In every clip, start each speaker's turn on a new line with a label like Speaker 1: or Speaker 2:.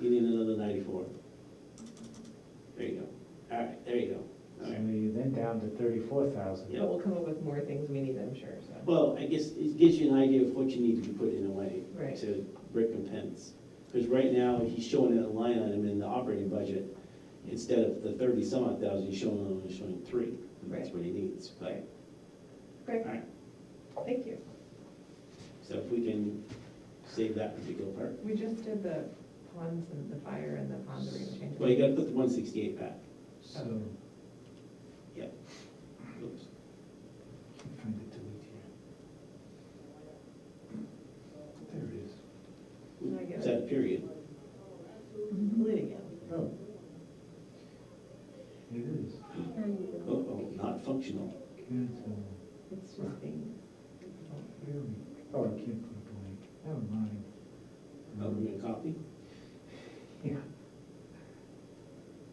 Speaker 1: You need another ninety-four. There you go. All right, there you go. All
Speaker 2: So
Speaker 1: right.
Speaker 2: you're then down to thirty-four thousand.
Speaker 1: Yeah.
Speaker 3: But we'll come up with more things we need, I'm sure, so.
Speaker 1: Well, I guess it gives you an idea of what you need to be put in a way
Speaker 3: Right.
Speaker 1: to recompense. Because right now, he's showing it a line item in the operating budget, instead of the thirty some odd thousand, he's showing, only showing three. And That's
Speaker 3: Right.
Speaker 1: what he needs, but,
Speaker 3: Great,
Speaker 1: all right,
Speaker 3: thank you.
Speaker 1: so if we can save that particular part.
Speaker 3: We just did the ponds and the fire and the pondering change.
Speaker 1: Well, you gotta put the one sixty-eight back.
Speaker 2: So,
Speaker 3: Okay.
Speaker 1: Oops.
Speaker 2: can't find it delete here. There it is.
Speaker 3: I get
Speaker 1: Is that a period?
Speaker 3: Bleeding out.
Speaker 2: Oh. It is.
Speaker 1: Oh, oh, not functional.
Speaker 2: Cancel.
Speaker 3: It's just being,
Speaker 2: There we, uh, oh, I can't put a blank. Never mind.
Speaker 1: Oh, we're gonna copy?
Speaker 2: Yeah.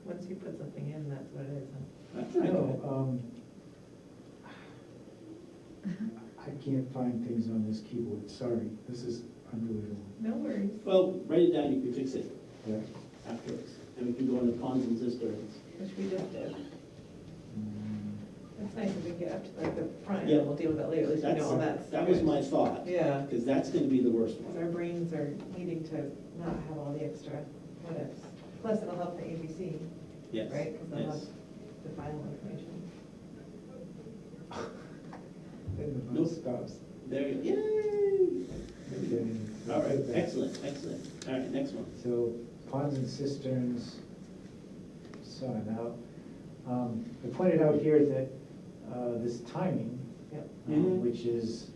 Speaker 3: once you put something in, that's what it is, huh?
Speaker 1: That's not
Speaker 2: No,
Speaker 1: good.
Speaker 2: um, I can't find things on this keyboard, sorry, this is unbelievable.
Speaker 3: No worries.
Speaker 1: Well, write it down, you can fix it
Speaker 2: Yeah.
Speaker 1: afterwards. And we can go into ponds and cisterns.
Speaker 3: Which we just did.
Speaker 2: Mm,
Speaker 3: That's nice if we get up to like the front
Speaker 1: Yeah.
Speaker 3: and we'll deal with that later, at least we know all
Speaker 2: That's-
Speaker 3: that's.
Speaker 1: That was my thought.
Speaker 3: Yeah,
Speaker 1: Because that's gonna be the worst
Speaker 3: because our
Speaker 1: one.
Speaker 3: brains are needing to not have all the extra what ifs. Plus it'll help the ABC,
Speaker 1: Yes.
Speaker 3: right? Because they'll have
Speaker 1: yes.
Speaker 3: the final information.
Speaker 2: Then the
Speaker 1: Nope.
Speaker 2: bus stops.
Speaker 1: There, you-
Speaker 2: Okay,
Speaker 1: yay! All right,
Speaker 2: that's it.
Speaker 1: excellent, excellent. All right, next one.
Speaker 2: So ponds and cisterns, so I'm out. Um, I pointed out here that, uh, this timing,
Speaker 3: Yep.
Speaker 2: uh,
Speaker 1: Mhm.
Speaker 2: which is,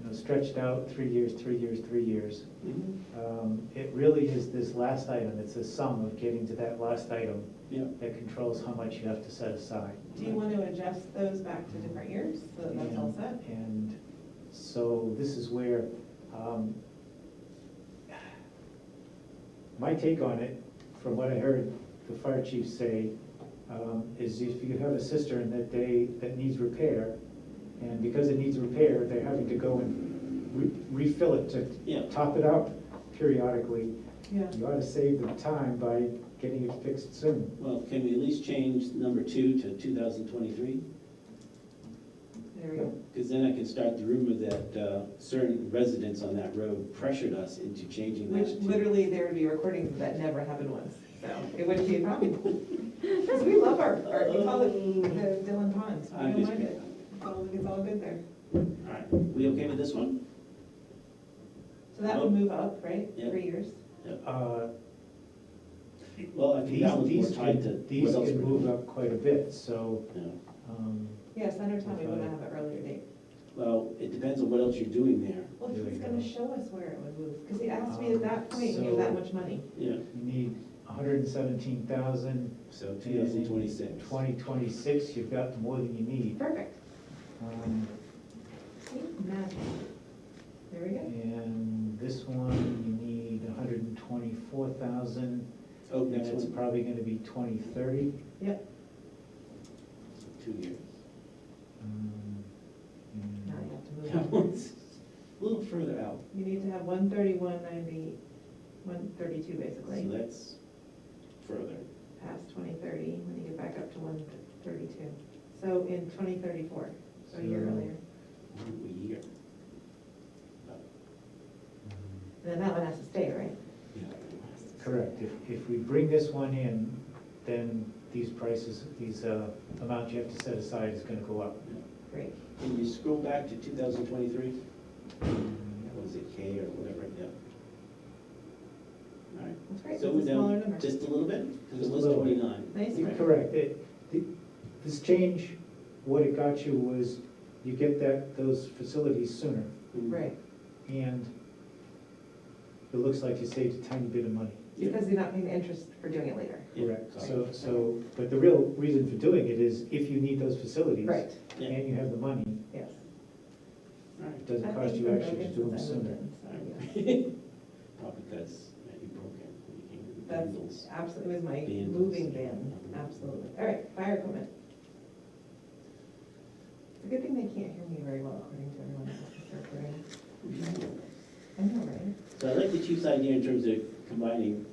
Speaker 2: you know, stretched out three years, three years, three years.
Speaker 1: Mhm,
Speaker 2: Um, It really is this last item, it's the sum of getting to that last item
Speaker 1: Yeah,
Speaker 2: that controls how much you have to set aside.
Speaker 3: Do you want to adjust those back to different years, so that that's all set?
Speaker 2: And- And so this is where, um, my take on it, from what I heard the fire chief say, um, is if you have a cistern that they, that needs repair, and because it needs repair, they're having to go and re- refill it to
Speaker 1: yeah,
Speaker 2: top it up periodically,
Speaker 3: Yeah.
Speaker 2: You ought to save the time by getting it fixed soon.
Speaker 1: well, can we at least change number two to two thousand twenty-three?
Speaker 3: There we go.
Speaker 1: Because then I can start the rumor that uh, certain residents on that road pressured us into changing that.
Speaker 3: Which
Speaker 1: to-
Speaker 3: literally there would be recordings that never happened once, so it wouldn't be a problem. Because we love our, our, we call it the Dylan Ponds. We
Speaker 1: I'm
Speaker 3: don't
Speaker 1: just
Speaker 3: mind it.
Speaker 1: kidding.
Speaker 3: It's all, it's all good there.
Speaker 1: All right, we okay with this one?
Speaker 3: So that would move up, right?
Speaker 1: Yeah.
Speaker 3: Three years?
Speaker 2: Uh,
Speaker 1: Well, I think
Speaker 2: These,
Speaker 1: that one's more
Speaker 2: these
Speaker 1: tied to
Speaker 2: can, these
Speaker 1: what else
Speaker 2: can
Speaker 1: we're
Speaker 2: move
Speaker 1: doing.
Speaker 2: up quite a bit, so,
Speaker 1: Yeah.
Speaker 2: um,
Speaker 3: Yeah, Senator told me we want to have an earlier date.
Speaker 1: Well, it depends on what else you're doing there,
Speaker 3: Well,
Speaker 2: There we
Speaker 3: he's
Speaker 2: go.
Speaker 3: gonna show us where it would move, because he asked me at that point, you have that much money.
Speaker 1: yeah,
Speaker 2: you need hundred and seventeen thousand,
Speaker 1: so two thousand twenty-six.
Speaker 2: twenty twenty-six, you've got more than you need.
Speaker 3: Perfect.
Speaker 2: Um,
Speaker 3: See, magic. There we go.
Speaker 2: And this one, you need hundred and twenty-four thousand,
Speaker 1: Oh,
Speaker 2: and
Speaker 1: next
Speaker 2: it's
Speaker 1: one,
Speaker 2: probably gonna be twenty thirty.
Speaker 3: Yep,
Speaker 1: two years.
Speaker 2: Um,
Speaker 3: now you have to move
Speaker 1: That
Speaker 3: up.
Speaker 1: one's a little further out,
Speaker 3: You need to have one thirty, one ninety, one thirty-two
Speaker 1: so
Speaker 3: basically,
Speaker 1: that's further.
Speaker 3: past twenty thirty, when you get back up to one thirty-two. So in twenty thirty-four, so a year
Speaker 2: So-
Speaker 3: earlier.
Speaker 1: Ooh, A year.
Speaker 3: And then that one has to stay, right?
Speaker 1: Yeah.
Speaker 2: um, Correct. If, if we bring this one in, then these prices, these uh, amounts you have to set aside is gonna go up.
Speaker 3: Great.
Speaker 1: Can you scroll back to two thousand twenty-three? That was it K or whatever, yeah. All right,
Speaker 3: That's great.
Speaker 1: so
Speaker 3: It's a
Speaker 1: we're
Speaker 3: smaller
Speaker 1: down
Speaker 3: number.
Speaker 1: just a little bit, because
Speaker 2: Just
Speaker 1: it
Speaker 2: a
Speaker 1: was
Speaker 2: little bit.
Speaker 1: twenty-nine.
Speaker 3: Nice.
Speaker 1: Right.
Speaker 2: Correct. It, the- this change, what it got you was you get that, those facilities sooner.
Speaker 1: Mm.
Speaker 3: Right,
Speaker 2: And it looks like you saved a tiny bit of money.
Speaker 1: Yeah.
Speaker 3: because you're not paying the interest for doing it later.
Speaker 1: Yeah,
Speaker 2: Correct.
Speaker 1: got it.
Speaker 2: So, so, but the real reason for doing it is if you need those facilities.
Speaker 3: Right,
Speaker 1: Yeah,
Speaker 2: And you have the money,
Speaker 3: yes.
Speaker 1: all right.
Speaker 2: it doesn't cost you actually to do them sooner.
Speaker 1: Probably because yeah, you broke it when you came to the
Speaker 3: That's
Speaker 1: Bengals.
Speaker 3: absolutely, it was my
Speaker 1: Vandals.
Speaker 3: moving van, absolutely. All right, fire equipment. It's a good thing they can't hear me very well according to everyone else's recording. I know, right?
Speaker 1: So I like the chief's idea in terms of combining